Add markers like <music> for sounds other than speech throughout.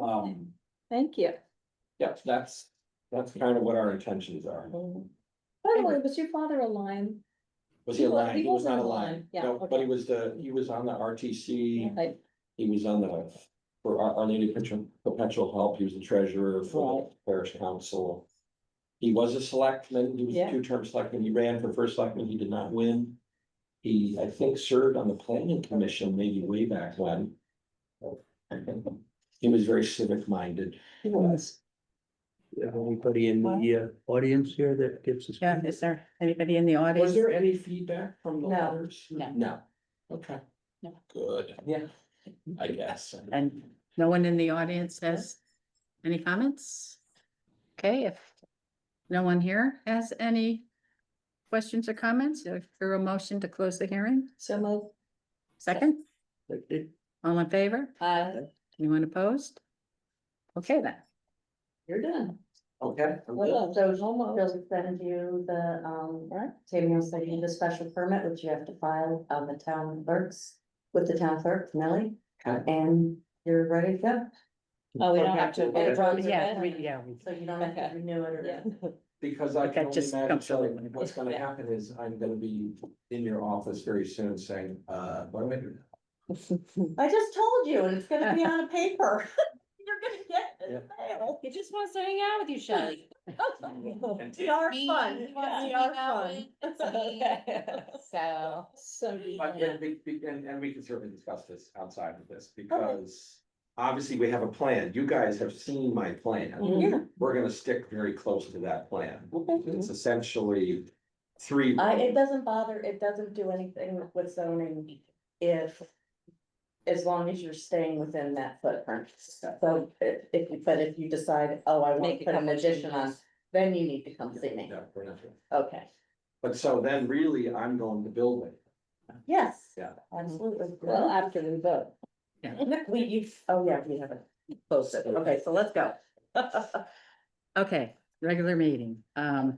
Um, Thank you. yeah, that's, that's kind of what our intentions are. By the way, was your father a lion? Was he He wa- aligned? he He was was on not the aligned. line, yeah, No, but okay. he was the, he was on the RTC. Like, He was on the, for our, our Lady Perpetual, Perpetual Help, he was the treasurer for the parish council. He was a selectman, he was a Yeah. two-term selectman, he ran for first selectman, he did not win. He, I think, served on the planning commission maybe way back when. <laughs> He was very civic-minded. He was. Is there Anybody in the uh, audience here that gives us? Yeah, is there anybody in the audience? Was there any feedback from the No, letters? no. No, okay. No. Good, Yeah. I guess. And no one in the audience has any comments? Okay, if no one here has any questions or comments, if there a motion to close the hearing, So moved. second, Like, did- all in favor? Uh, Anyone opposed? Okay then, You're done. Okay. I'm good. Well, So she'll send you the, um, Right. Tammy will send you the special permit, which you have to file on the town clerks, with the town clerk, Millie. Okay. And you're ready to go, oh, we don't have to. Okay. it runs yeah, with we, it. yeah, we- so you don't have Okay. to renew it Yeah. or. Because I Like, can I only just imagine don't feel so like when it what's gonna happen is I'm gonna be in your office very soon saying, uh, what am I doing? I just told you, and it's gonna be on a <laughs> paper. You're gonna get it. in the mail. He just wants to hang out with you, <laughs> Shelley. <laughs> We are He- fun, he wants to we hang are out fun. with me, <laughs> So, So. do you. But Yeah. and we, we- and, and we can certainly discuss this outside of this because obviously we have a plan. You guys have seen my plan. Yeah. We're gonna stick very close to that plan. Okay. It's essentially three. I, it doesn't bother, it doesn't do anything with zoning if, as long as you're staying within that footprint. So if, if- but if you decide, oh, I want Make to a put an couple addition on, changes. then you need to come see me. No, we're not doing- Okay, But so then really I'm going to build it. yes. Yeah. Absolutely. Well, after we vote. <laughs> We, you, oh, yeah, we haven't posted. Okay, so let's go. <laughs> Um, okay, regular meeting, um,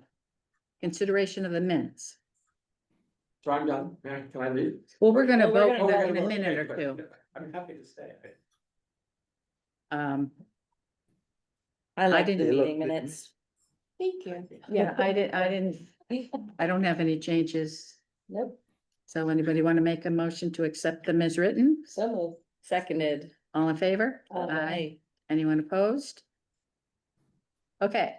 consideration of the minutes. So I'm done. Mary, Can I leave? Well, Oh, we're gonna Well, vote we're gonna over vote. in a minute or two, I'm happy to stay. um, I like like the the didn't- meeting meeting minutes. minutes. thank you. yeah, I didn't, I didn't, I don't have any changes. Nope, So anybody want to make a motion to accept them as written? so moved. Seconded. All in favor? Anyone opposed? Okay.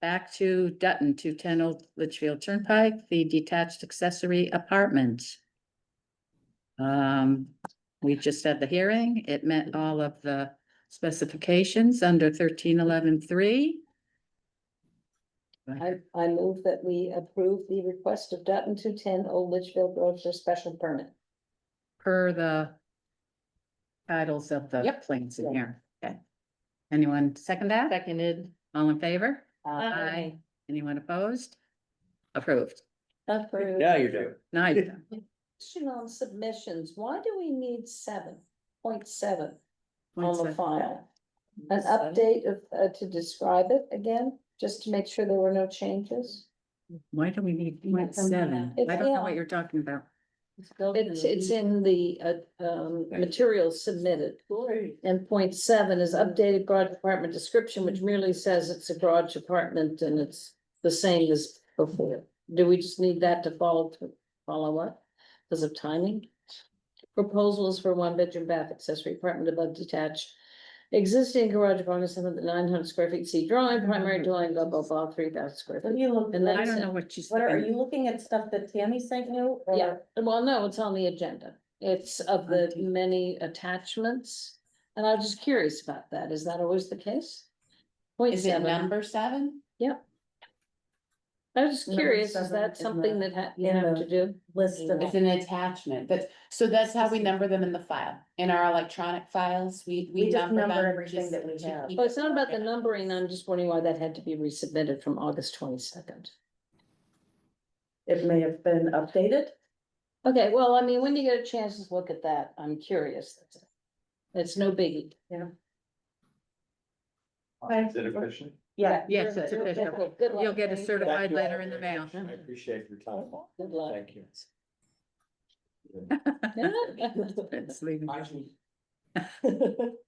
Back to Dutton, two ten Old Litchfield Turnpike, the detached accessory apartment. Um, we just had the hearing. It met all of the specifications under thirteen eleven three. I, I move that we approve the request of Dutton two ten Old Litchfield Road for special permit. per the titles of the Yep. plans in here. Okay. Anyone second that? Seconded. All in favor? um, Aye. Anyone opposed? Approved. Approved. Now you're doing. Now you're done. Question on submissions, why do we need seven point seven Point on the seven. file? An update of, uh, to describe it again, just to make sure there were no changes? Why do we need point seven? It's- I don't know yeah. what you're talking about. It's, it's in the, uh, um, materials submitted. And point seven is updated garage apartment description, which merely says it's a garage apartment and it's the same as before. Do we just need that to follow, to follow up because of timing? Proposals for one bedroom bath accessory apartment above detached. Existing garage apartment, seven to nine hundred square feet, see drawing, primary dwelling, blah, blah, blah, three thousand square What are feet. you looking, And I that's don't it. know what you what are said. you looking at stuff that Tammy sent you? or- Yeah, well, no, it's on the agenda. It's of the many attachments. And I'm just curious about that. Is that always the case? Point Is it seven. number seven? I was just Number curious, is seven that in something the- that ha- you in have to the- do? List of. It's an attachment, that's, so that's how we number them in the file, in our electronic files, we, We we just number number them. everything just that we to have. keep- Well, it's not about the numbering. I'm just wondering why that had to be resubmitted from August twenty-second. It may have been updated. Okay, well, I mean, when you get a chance to look at that, I'm curious. That's it. It's no biggie. Is it efficient? Yeah. Yes, it's Good official. luck. Good luck. You'll get a Thank you. certified Thank you all letter in the very mail. much. I appreciate your time. Good luck. Thank you. <laughs> <laughs> It's leaving. Actually,